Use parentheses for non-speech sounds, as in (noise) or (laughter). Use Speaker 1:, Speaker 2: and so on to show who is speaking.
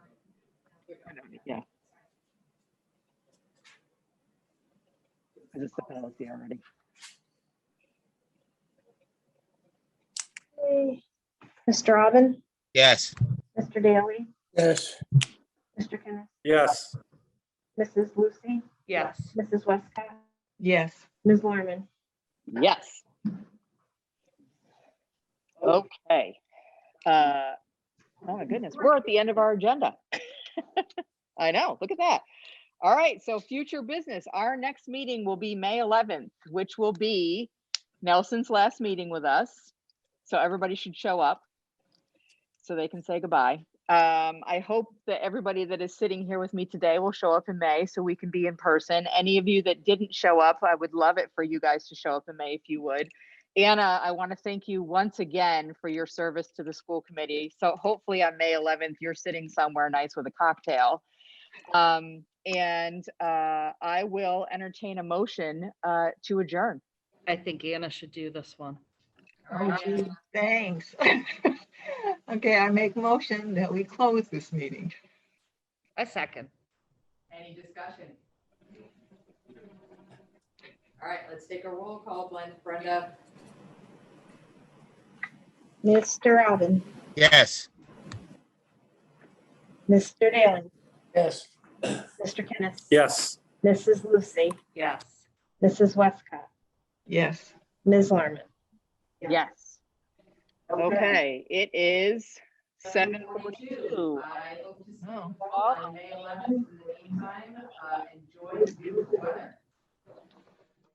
Speaker 1: Yeah. Is this the policy already?
Speaker 2: Okay. Mr. Robin?
Speaker 3: Yes.
Speaker 2: Mr. Daly?
Speaker 4: Yes.
Speaker 2: Mr. Kenneth?
Speaker 4: Yes.
Speaker 2: Mrs. Lucy?
Speaker 5: Yes.
Speaker 2: Mrs. Westcott?
Speaker 5: Yes.
Speaker 2: Ms. Larmen?
Speaker 1: Yes. Okay. Uh, Oh my goodness, we're at the end of our agenda. (laughs) I know, look at that. All right, so future business, our next meeting will be May 11th, which will be Nelson's last meeting with us. So everybody should show up so they can say goodbye. Um, I hope that everybody that is sitting here with me today will show up in May so we can be in person. Any of you that didn't show up, I would love it for you guys to show up in May if you would. Anna, I want to thank you once again for your service to the school committee. So hopefully on May 11th, you're sitting somewhere nice with a cocktail. Um, and uh, I will entertain a motion uh, to adjourn.
Speaker 6: I think Anna should do this one.
Speaker 5: Oh, gee, thanks. (laughs) Okay, I make motion that we close this meeting.
Speaker 6: A second.
Speaker 7: Any discussion? All right, let's take a roll call, Blen- Brenda.
Speaker 2: Mr. Robin?
Speaker 3: Yes.
Speaker 2: Mr. Daly?
Speaker 4: Yes.
Speaker 2: Mr. Kenneth?
Speaker 4: Yes.
Speaker 2: Mrs. Lucy?
Speaker 6: Yes.
Speaker 2: Mrs. Westcott?
Speaker 5: Yes.
Speaker 2: Ms. Larmen? Yeah.
Speaker 1: Yes. Okay, it is 7:42.
Speaker 7: I hope to see you
Speaker 5: Oh.
Speaker 7: all on May eleventh. In the meantime, uh, enjoy the beautiful weather.